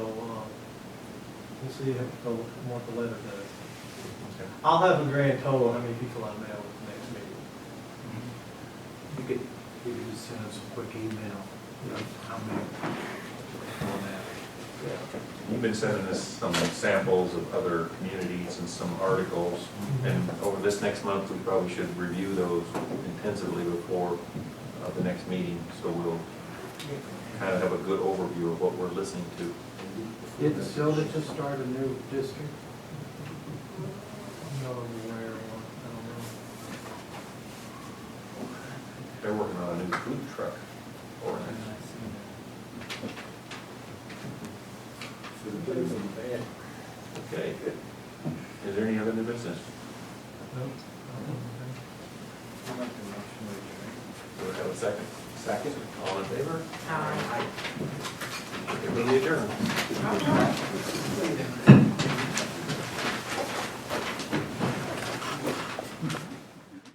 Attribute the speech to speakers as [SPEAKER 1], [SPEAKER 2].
[SPEAKER 1] so you have to go look at what the letter does. I'll have a grand total on how many people I mail at the next meeting.
[SPEAKER 2] You could, you could just send us a quick email, you know, how many, on that.
[SPEAKER 3] You've been sending us some samples of other communities and some articles, and over this next month, we probably should review those intensively before uh, the next meeting, so we'll kind of have a good overview of what we're listening to.
[SPEAKER 4] Did Silda just start a new district?
[SPEAKER 1] I'm not aware of one, I don't know.
[SPEAKER 3] They're working on a new food truck ordinance. Okay. Is there any other new business?
[SPEAKER 1] Nope. I don't know.
[SPEAKER 3] Do we have a second? Second. All in favor?
[SPEAKER 5] Aye.
[SPEAKER 3] Everybody adjourned.
[SPEAKER 5] Aye.